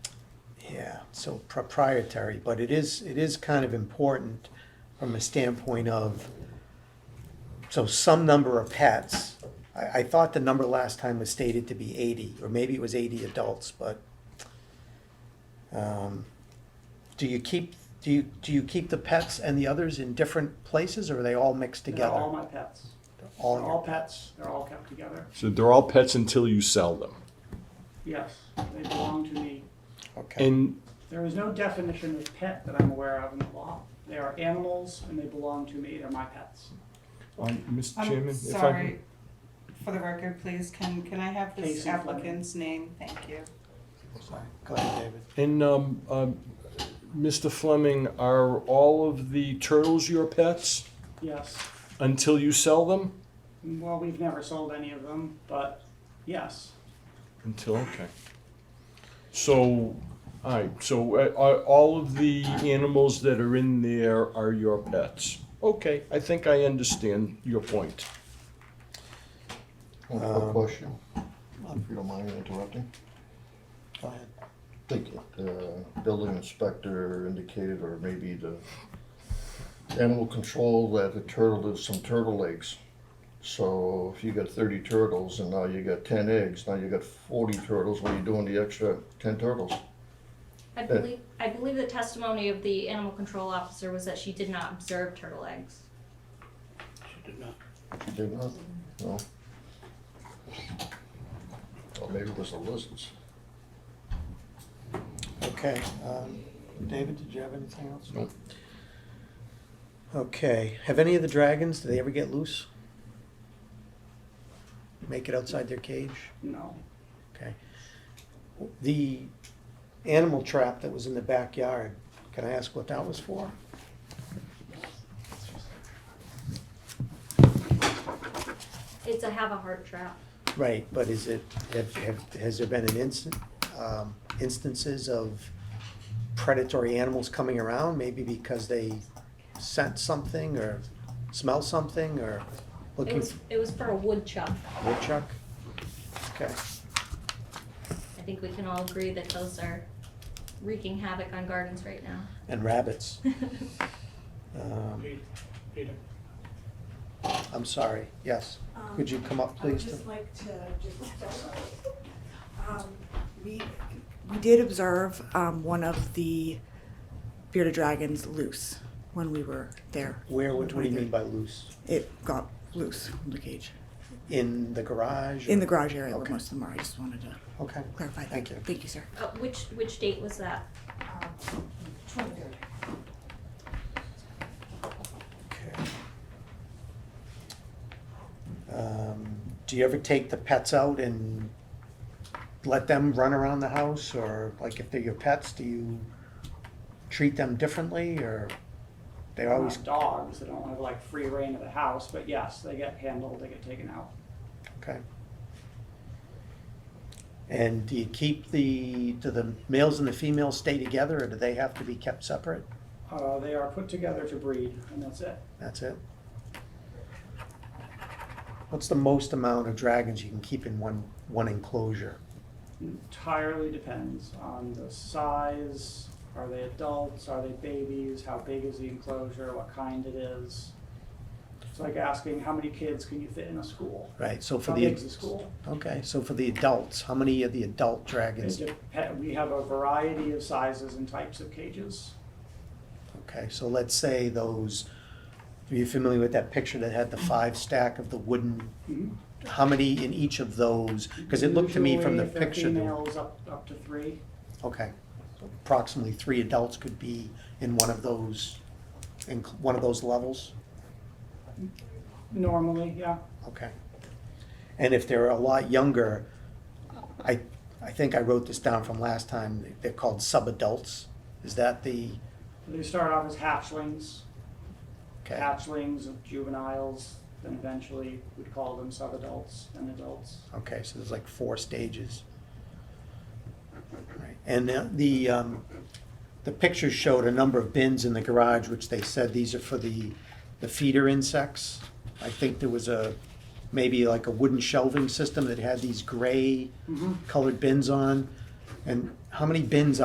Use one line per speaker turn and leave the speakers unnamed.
so proprietary, but it is, it is kind of important from a standpoint of, so some number of pets. I, I thought the number last time was stated to be eighty, or maybe it was eighty adults, but, um, do you keep, do you, do you keep the pets and the others in different places, or are they all mixed
They're
together?
all my pets.
All
They're
your
all pets, they're all kept together.
So they're all pets until you sell them.
Yes, they belong to me.
Okay.
And
There is no definition of pet that I'm aware of in the law. They are animals and they belong to me, they're my pets.
um, Mr.
I'm
Chairman, if I
sorry,
could,
for the record, please, can, can I have this
Casey Fleming.
applicant's name? Thank you.
Sorry. Go ahead, David.
and um, um, Mr. Fleming, are all of the turtles your pets
Yes,
until you sell them?
well, we've never sold any of them, but yes,
Until okay. So, all right. So uh, are, all of the animals that are in there are your pets. Okay, I think I understand your point.
One
Um,
quick question, if you don't mind me interrupting.
Go ahead.
I think the building inspector indicated, or maybe the animal control, that the turtle did some turtle eggs. So if you got thirty turtles and now you got ten eggs, now you got forty turtles, what are you doing the extra ten turtles?
I believe, I believe the testimony of the animal control officer was that she did not observe turtle eggs.
she did not.
You did not, no? Or maybe it was the lizards.
Okay, um, David, did you have anything else? No. Okay, have any of the dragons, do they ever get loose? Make it outside their cage?
No,
Okay. The animal trap that was in the backyard, can I ask what that was for?
It's a have a heart trap.
Right, but is it, have, have, has there been an instant, um, instances of predatory animals coming around, maybe because they scent something or smell something or
It
looking
was,
for
it was for a woodchuck.
woodchuck? Okay,
I think we can all agree that those are wreaking havoc on gardens right now.
and rabbits. Um,
Peter, Peter.
I'm sorry, yes.
Um,
Could you come up,
I would
please?
just like to just, um, we, we did observe, um, one of the bearded dragons loose when we were there.
Where, would what do you mean by loose?
It got loose from the cage,
In the garage? or-
in the garage area where
Okay.
most of them are. I just wanted to
Okay,
clarify that.
Thank you.
Thank you, sir.
Uh, which, which date was that?
okay. Um, do you ever take the pets out and let them run around the house, or like if they're your pets, do you treat them differently, or they
They're
always,
not dogs, they don't have like free reign of the house, but yes, they get handled, they get taken out.
okay? And do you keep the, do the males and the females stay together, or do they have to be kept separate?
Uh, they are put together to breed, and that's it.
That's it? What's the most amount of dragons you can keep in one, one enclosure?
Entirely depends on the size, are they adults, are they babies, how big is the enclosure, what kind it is. It's like asking, how many kids can you fit in a school?
Right, so for
How
the.
big's the school?
Okay, so for the adults, how many of the adult
It
dragons?
dep- We have a variety of sizes and types of cages.
Okay, so let's say those, are you familiar with that picture that had the five stack of the wooden?
Mhm.
How many in each of those? Because Mm-hmm. it looked to me from the
Usually, if they're
picture. that-
Females up, up to three.
Okay, so approximately three adults could be in one of those, in one of those levels?
Normally, yeah.
Okay. And if they're a lot younger, I, I think I wrote this down from last time, they're called subadults. Is that the,
They start off as hatchlings,
okay,
hatchlings of juveniles, then eventually we'd call them sub-adults and adults.
okay, so there's like four stages. Right. And the- the, um, the pictures showed a number of bins in the garage, which they said these are for the, the feeder insects. I think there was a, maybe like a wooden shelving system that had these gray
Mm-hmm.
colored bins on. And how many bins